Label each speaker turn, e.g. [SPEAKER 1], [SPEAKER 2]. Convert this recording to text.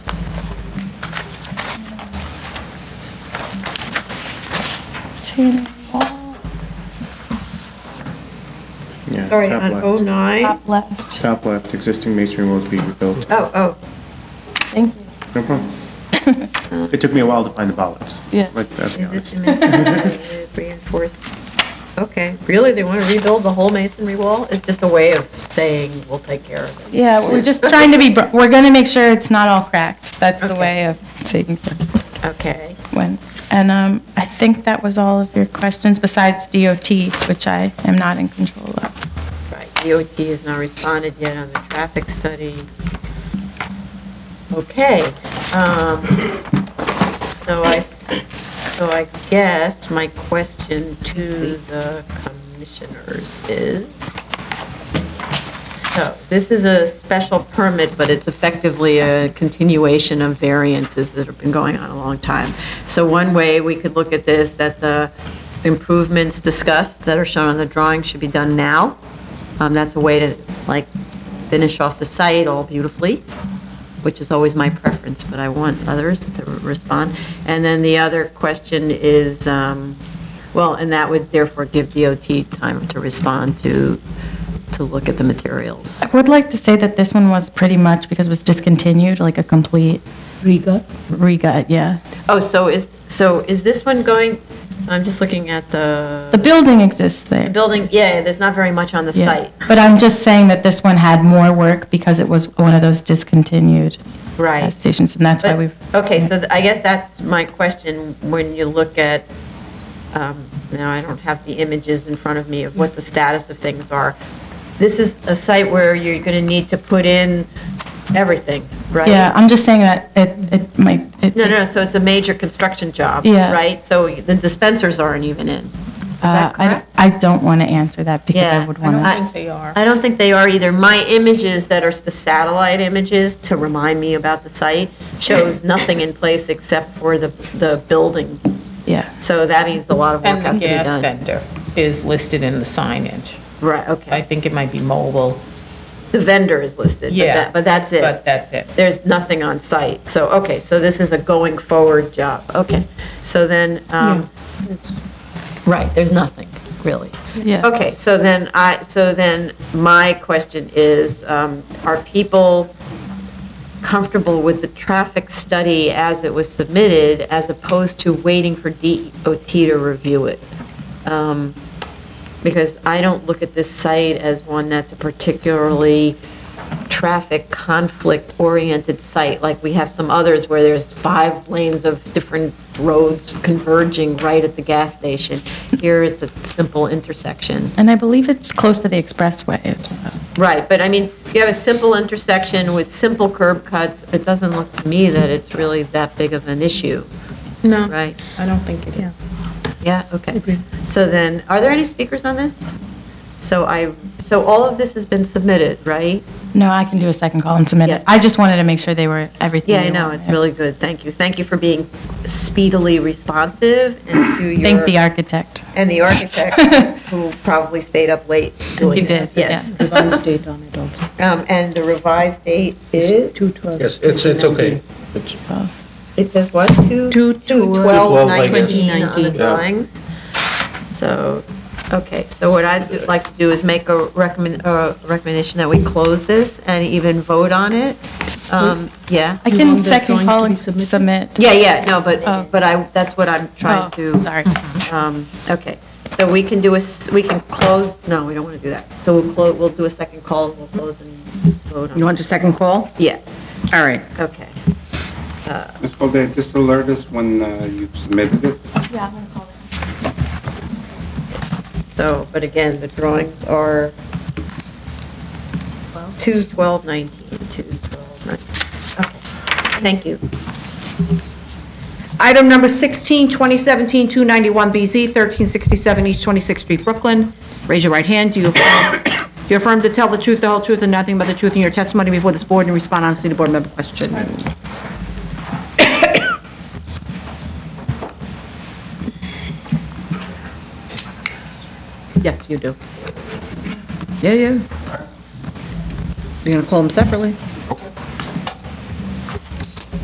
[SPEAKER 1] Retaining wall,
[SPEAKER 2] Yeah,
[SPEAKER 3] Sorry, uh, oh.
[SPEAKER 2] top left.
[SPEAKER 3] on 09?
[SPEAKER 1] top left.
[SPEAKER 2] Top left, existing masonry will be rebuilt.
[SPEAKER 3] Oh, oh,
[SPEAKER 1] Thank you.
[SPEAKER 2] No problem. It took me a while to find the ballots.
[SPEAKER 1] Yeah.
[SPEAKER 2] Like, I'll be
[SPEAKER 3] is this
[SPEAKER 2] honest.
[SPEAKER 3] dimension reinforced? Okay, really, they want to rebuild the whole masonry wall? It's just a way of saying, we'll take care of it.
[SPEAKER 1] Yeah, we're just trying to be, br- we're going to make sure it's not all cracked. That's the
[SPEAKER 3] Okay.
[SPEAKER 1] way of taking care of it
[SPEAKER 3] Okay,
[SPEAKER 1] when. And um, I think that was all of your questions besides DOT, which I am not in control of.
[SPEAKER 3] right, DOT has not responded yet on the traffic study. Okay, um, so I, s- so I guess my question to the commissioners is, So this is a special permit, but it's effectively a continuation of variances that have been going on a long time. So one way we could look at this, that the improvements discussed that are shown on the drawing should be done now. Um, That's a way to, like, finish off the site all beautifully, which is always my preference, but I want others to respond. And then the other question is, um, well, and that would therefore give DOT time to respond to, to look at the materials.
[SPEAKER 1] I would like to say that this one was pretty much, because it was discontinued, like a complete
[SPEAKER 4] Riga.
[SPEAKER 1] regut, yeah.
[SPEAKER 3] Oh, so is, so is this one going, so I'm just looking at the.
[SPEAKER 1] The building exists there.
[SPEAKER 3] The building, yeah, there's not very much on the
[SPEAKER 1] Yeah.
[SPEAKER 3] site.
[SPEAKER 1] But I'm just saying that this one had more work because it was one of those discontinued
[SPEAKER 3] Right.
[SPEAKER 1] gas stations, and that's why
[SPEAKER 3] But-
[SPEAKER 1] we.
[SPEAKER 3] Okay, so th- I guess that's my question, when you look at, um, now I don't have the images in front of me of what the status of things are. This is a site where you're going to need to put in everything, right?
[SPEAKER 1] Yeah, I'm just saying that it, it might. it-
[SPEAKER 3] No, no, no, so it's a major construction job,
[SPEAKER 1] Yeah.
[SPEAKER 3] right? So the dispensers aren't even in. Is
[SPEAKER 1] Uh,
[SPEAKER 3] that
[SPEAKER 1] I,
[SPEAKER 3] correct?
[SPEAKER 1] don't- I don't want to answer that because I
[SPEAKER 3] Yeah,
[SPEAKER 1] would
[SPEAKER 3] I
[SPEAKER 1] want
[SPEAKER 3] don't
[SPEAKER 1] to.
[SPEAKER 3] think they are. I don't think they are either. My images that are the satellite images to remind me about the site shows nothing in place except for the, the building.
[SPEAKER 1] Yeah,
[SPEAKER 3] So that means a lot of work
[SPEAKER 4] And
[SPEAKER 3] has
[SPEAKER 4] the
[SPEAKER 3] to be
[SPEAKER 4] gas
[SPEAKER 3] done.
[SPEAKER 4] vendor is listed in the signage.
[SPEAKER 3] Right,
[SPEAKER 4] I
[SPEAKER 3] okay.
[SPEAKER 4] think it might be mobile.
[SPEAKER 3] The vendor is listed, but
[SPEAKER 4] Yeah.
[SPEAKER 3] that, but that's
[SPEAKER 4] But
[SPEAKER 3] it.
[SPEAKER 4] that's it.
[SPEAKER 3] There's nothing on site. So, okay, so this is a going forward job. Okay. So then, um, right, there's nothing, really.
[SPEAKER 1] yeah.
[SPEAKER 3] Okay, so then I, so then my question is, um, are people comfortable with the traffic study as it was submitted as opposed to waiting for DOT to review it? Um, Because I don't look at this site as one that's a particularly traffic conflict oriented site. Like we have some others where there's five lanes of different roads converging right at the gas station. Here it's a simple intersection.
[SPEAKER 1] And I believe it's close to the expressway as well.
[SPEAKER 3] Right, but I mean, you have a simple intersection with simple curb cuts. It doesn't look to me that it's really that big of an issue,
[SPEAKER 4] No.
[SPEAKER 3] right?
[SPEAKER 4] I don't think it is.
[SPEAKER 3] Yeah, okay. So then, are there any speakers on this? So I, so all of this has been submitted, right?
[SPEAKER 1] No, I can do a second call and submit
[SPEAKER 3] Yes.
[SPEAKER 1] it. I just wanted to make sure they were everything.
[SPEAKER 3] Yeah, I
[SPEAKER 1] they
[SPEAKER 3] know,
[SPEAKER 1] wanted.
[SPEAKER 3] it's really good. Thank you. Thank you for being speedily responsive and to your.
[SPEAKER 1] Thank the architect.
[SPEAKER 3] And the architect, who probably stayed up late doing
[SPEAKER 1] He
[SPEAKER 3] this.
[SPEAKER 1] did,
[SPEAKER 3] Yes.
[SPEAKER 5] revised date on it also.
[SPEAKER 3] Um, And the revised date is,
[SPEAKER 5] 2/12.
[SPEAKER 6] Yes, it's, it's okay. It's,
[SPEAKER 3] it says what, 2?
[SPEAKER 5] Two-
[SPEAKER 3] 12
[SPEAKER 6] 12, I
[SPEAKER 3] 19
[SPEAKER 6] guess.
[SPEAKER 3] on the
[SPEAKER 6] 2019. Yeah.
[SPEAKER 3] drawings. So, okay, so what I'd like to do is make a recommend, a recommendation that we close this and even vote on it. Um, Yeah?
[SPEAKER 1] I
[SPEAKER 5] You
[SPEAKER 1] can
[SPEAKER 5] want the
[SPEAKER 1] second
[SPEAKER 5] drawings to
[SPEAKER 1] call
[SPEAKER 5] be
[SPEAKER 1] and
[SPEAKER 5] submitted?
[SPEAKER 1] submit.
[SPEAKER 3] Yeah, yeah, no,
[SPEAKER 1] Oh.
[SPEAKER 3] but, but I, that's what I'm trying
[SPEAKER 1] Oh,
[SPEAKER 3] to.
[SPEAKER 1] Sorry.
[SPEAKER 3] Um, Okay, so we can do a, s- we can close, no, we don't want to do that. So we'll close, we'll do a second call, we'll close and vote on it.
[SPEAKER 5] You want your second call?
[SPEAKER 3] Yeah,
[SPEAKER 5] All right.
[SPEAKER 3] okay.
[SPEAKER 7] Ms. Boldea, just alert us when uh, you've submitted it.
[SPEAKER 1] Yeah, I'm gonna call them.
[SPEAKER 3] So, but again, the drawings are 2 12 19, 2 12 19. Okay, thank you.
[SPEAKER 4] Item number 16, 2017-291BZ, 1367 East 26th Street, Brooklyn. Raise your right hand. Do you affirm do you affirm to tell the truth, the whole truth, and nothing but the truth in your testimony before this board and respond honestly to board member questions?
[SPEAKER 3] Yes, you do.
[SPEAKER 5] Yeah, yeah. You're going to call them separately?